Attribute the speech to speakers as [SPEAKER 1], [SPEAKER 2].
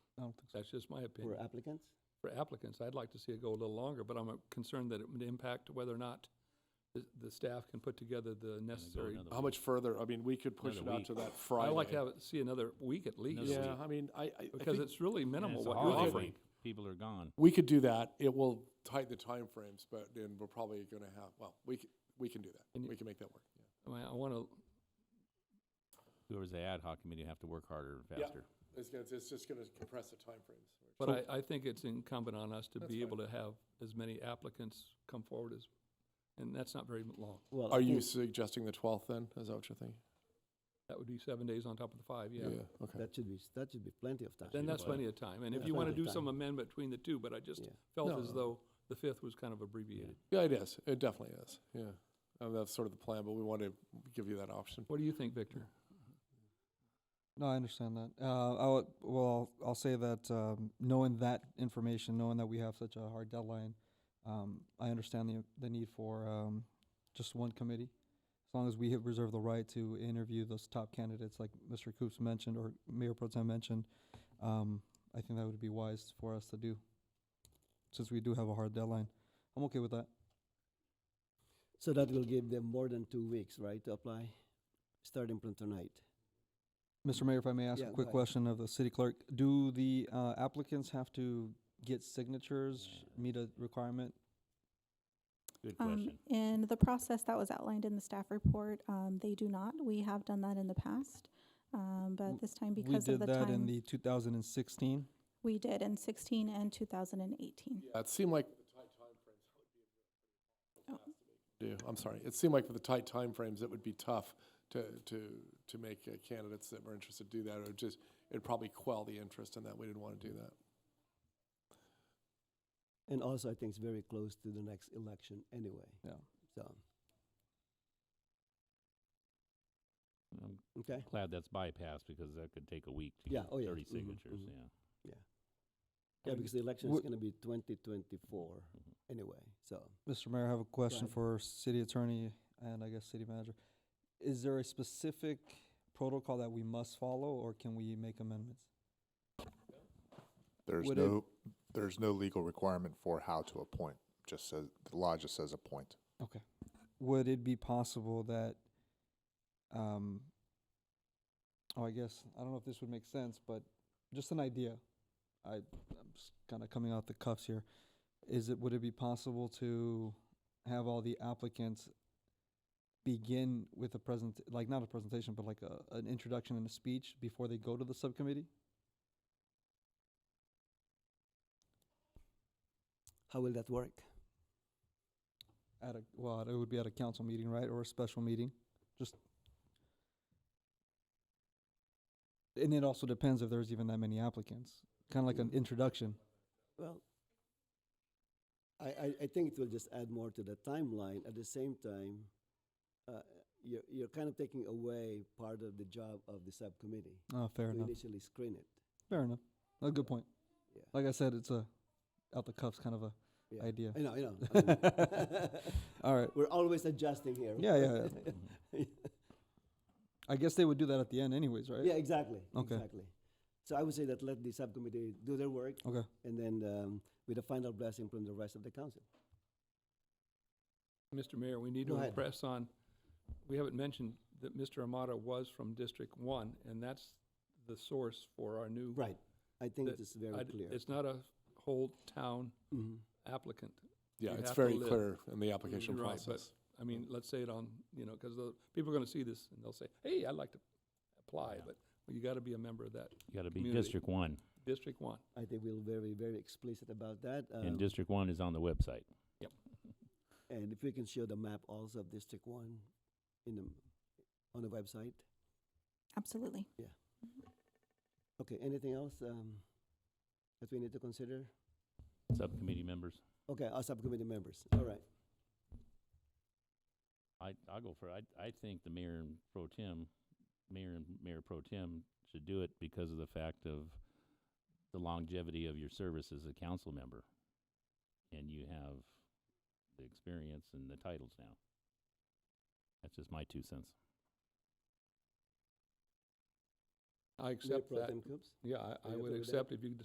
[SPEAKER 1] I don't think, so. that's just my
[SPEAKER 2] for
[SPEAKER 1] opinion.
[SPEAKER 2] applicants?
[SPEAKER 1] For applicants, I'd like to see it go a little longer, but I'm uh, concerned that it would impact whether or not the, the staff can put together the necessary.
[SPEAKER 3] another
[SPEAKER 4] How much further? I mean, we could push it
[SPEAKER 3] Another
[SPEAKER 4] out
[SPEAKER 3] week.
[SPEAKER 4] to that
[SPEAKER 1] I
[SPEAKER 4] Friday.
[SPEAKER 1] like to have it, see another week at least,
[SPEAKER 4] Yeah, I mean, I, I- I
[SPEAKER 1] because
[SPEAKER 4] think
[SPEAKER 1] it's really minimal
[SPEAKER 3] it's a
[SPEAKER 1] what you're
[SPEAKER 3] holiday
[SPEAKER 1] offering.
[SPEAKER 3] week. People are gone.
[SPEAKER 4] we could do that. It will tighten the timeframes, but then we're probably gonna have, well, we can, we can do
[SPEAKER 1] And
[SPEAKER 4] that.
[SPEAKER 1] you-
[SPEAKER 4] We can make that work. yeah.
[SPEAKER 1] I mean, I wanna,
[SPEAKER 3] Whoever's the ad hoc committee have to work harder and
[SPEAKER 4] Yeah.
[SPEAKER 3] faster.
[SPEAKER 4] It's gonna, it's just gonna compress the timeframes.
[SPEAKER 1] but I, I think it's incumbent on us to
[SPEAKER 4] That's
[SPEAKER 1] be
[SPEAKER 4] fine.
[SPEAKER 1] able to have as many applicants come forward as, and that's not very long.
[SPEAKER 2] Well, I
[SPEAKER 4] Are you
[SPEAKER 2] think
[SPEAKER 4] suggesting the twelfth then? Is that what you're thinking?
[SPEAKER 1] That would be seven days on top of the five, yeah.
[SPEAKER 4] Okay.
[SPEAKER 2] That should be, that should be plenty of time.
[SPEAKER 1] Then that's
[SPEAKER 3] that's
[SPEAKER 1] plenty of time, and if
[SPEAKER 2] That's
[SPEAKER 1] you wanna
[SPEAKER 2] plenty
[SPEAKER 1] do
[SPEAKER 2] of
[SPEAKER 1] some
[SPEAKER 2] time.
[SPEAKER 1] amendment between the two, but I just
[SPEAKER 2] Yeah.
[SPEAKER 1] felt
[SPEAKER 4] No,
[SPEAKER 1] as
[SPEAKER 4] no.
[SPEAKER 1] though the fifth was kind of abbreviated.
[SPEAKER 4] Yeah, it is. It definitely is. Yeah. And that's sort of the plan, but we want to give you that option.
[SPEAKER 1] What do you think, Victor?
[SPEAKER 5] No, I understand that. Uh, I would, well, I'll, I'll say that um, knowing that information, knowing that we have such a hard deadline, um, I understand the the need for um, just one committee. As long as we have reserved the right to interview those top candidates, like Mr. Coops mentioned or Mayor Pro Tem mentioned, um, I think that would be wise for us to do, since we do have a hard deadline. I'm okay with that.
[SPEAKER 2] So that will give them more than two weeks, right, to apply, starting from tonight?
[SPEAKER 5] Mr. Mayor, if I may ask
[SPEAKER 2] Yeah,
[SPEAKER 5] a
[SPEAKER 2] go
[SPEAKER 5] quick
[SPEAKER 2] ahead.
[SPEAKER 5] question of the city clerk, do the uh, applicants have to get signatures, meet a requirement?
[SPEAKER 3] Good
[SPEAKER 6] Um, in the process that was outlined in the staff report, um, they do not. We have done that in the past. Um,
[SPEAKER 5] W-
[SPEAKER 6] but this time
[SPEAKER 5] We
[SPEAKER 6] because of
[SPEAKER 5] did
[SPEAKER 6] the
[SPEAKER 5] that in
[SPEAKER 6] time,
[SPEAKER 5] the two thousand and sixteen.
[SPEAKER 6] we did in sixteen and two thousand and eighteen.
[SPEAKER 4] Yeah, it seemed like
[SPEAKER 6] Oh,
[SPEAKER 4] do. I'm sorry. It seemed like with the tight timeframes, it would be tough to, to, to make uh, candidates that were interested do that. It would just, it'd probably quell the interest in that. We didn't want to do that.
[SPEAKER 2] And also, I think it's very close to the next election anyway.
[SPEAKER 5] Yeah.
[SPEAKER 2] So,
[SPEAKER 3] I'm
[SPEAKER 2] okay,
[SPEAKER 3] glad that's bypassed because that could take a week to
[SPEAKER 2] Yeah,
[SPEAKER 3] get
[SPEAKER 2] oh, yeah.
[SPEAKER 4] Mm-hmm,
[SPEAKER 3] thirty
[SPEAKER 2] Mhm,
[SPEAKER 3] signatures,
[SPEAKER 2] mhm.
[SPEAKER 3] yeah.
[SPEAKER 2] yeah,
[SPEAKER 5] mean,
[SPEAKER 2] because the election is
[SPEAKER 5] wh-
[SPEAKER 2] gonna be twenty twenty-four
[SPEAKER 3] Mhm.
[SPEAKER 2] anyway, so.
[SPEAKER 5] Mr. Mayor, I have a question
[SPEAKER 2] ahead.
[SPEAKER 5] for city attorney and I guess city manager. Is there a specific protocol that we must follow or can we make amendments?
[SPEAKER 7] There's
[SPEAKER 5] Would it-
[SPEAKER 7] no, there's no legal requirement for how to appoint, just says, the law just says appoint.
[SPEAKER 5] Would it be possible that, um, oh, I guess, I don't know if this would make sense, but just an idea. I, I'm just kind of coming out the cuffs here. Is it, would it be possible to have all the applicants begin with a present, like not a presentation, but like a, an introduction and a speech before they go to the subcommittee?
[SPEAKER 2] How will that work?
[SPEAKER 5] At a, well, it would be at a council meeting, right, or a special meeting, just. And it also depends if there's even that many applicants, kinda like an introduction.
[SPEAKER 2] Well, I, I, I think it will just add more to the timeline. At the same time, uh, you're, you're kind of taking away part of the job of the subcommittee
[SPEAKER 5] Oh, fair
[SPEAKER 2] to
[SPEAKER 5] enough,
[SPEAKER 2] initially screen it.
[SPEAKER 5] fair enough, a good point.
[SPEAKER 2] Yeah.
[SPEAKER 5] Like I said, it's a out the cuffs kind of a
[SPEAKER 2] Yeah.
[SPEAKER 5] idea.
[SPEAKER 2] I know, I know. I know.
[SPEAKER 5] All right,
[SPEAKER 2] We're always adjusting here.
[SPEAKER 5] Yeah, yeah, I guess they would do that at the end anyways, right?
[SPEAKER 2] Yeah, exactly.
[SPEAKER 5] Okay.
[SPEAKER 2] Exactly. So I would say that let the subcommittee do their work
[SPEAKER 5] Okay,
[SPEAKER 2] and then um, with a final blessing from the rest of the council.
[SPEAKER 1] Mr. Mayor, we need
[SPEAKER 2] Go
[SPEAKER 1] to
[SPEAKER 2] ahead.
[SPEAKER 1] impress on, we haven't mentioned that Mr. Amata was from District One, and that's the source for our new.
[SPEAKER 2] Right. I think
[SPEAKER 1] that-
[SPEAKER 2] it's very
[SPEAKER 1] I d-
[SPEAKER 2] clear.
[SPEAKER 1] It's not a whole town
[SPEAKER 2] hmm
[SPEAKER 1] applicant.
[SPEAKER 4] Yeah,
[SPEAKER 1] You
[SPEAKER 4] it's
[SPEAKER 1] have to
[SPEAKER 4] very
[SPEAKER 1] live.
[SPEAKER 4] clear in the application
[SPEAKER 1] Right, but-
[SPEAKER 4] process.
[SPEAKER 1] I mean, let's say it on, you know, because the, people are gonna see this and they'll say, hey, I'd like to apply,
[SPEAKER 3] Yeah.
[SPEAKER 1] but you gotta be a member of that
[SPEAKER 3] You gotta be
[SPEAKER 1] Community.
[SPEAKER 3] District One,
[SPEAKER 1] District One.
[SPEAKER 2] I think we're very, very explicit about that.
[SPEAKER 3] and
[SPEAKER 2] um,
[SPEAKER 3] District One is on the website.
[SPEAKER 2] And if we can show the map also of District One in the, on the website.
[SPEAKER 6] Absolutely.
[SPEAKER 2] Okay, anything else, um, that we need to consider?
[SPEAKER 3] Subcommittee members,
[SPEAKER 2] Okay, our subcommittee members, all right.
[SPEAKER 3] I, I'll go for, it. I, I think the mayor and pro tem, mayor and mayor pro tem should do it because of the fact of the longevity of your service as a council member. And you have the experience and the titles now. That's just my two cents.
[SPEAKER 1] I
[SPEAKER 2] Mayor
[SPEAKER 1] accept
[SPEAKER 2] Pro
[SPEAKER 1] that.
[SPEAKER 2] Tem Coops?
[SPEAKER 1] Yeah, I, I
[SPEAKER 2] Are you
[SPEAKER 1] would
[SPEAKER 2] okay with that?
[SPEAKER 1] accept if you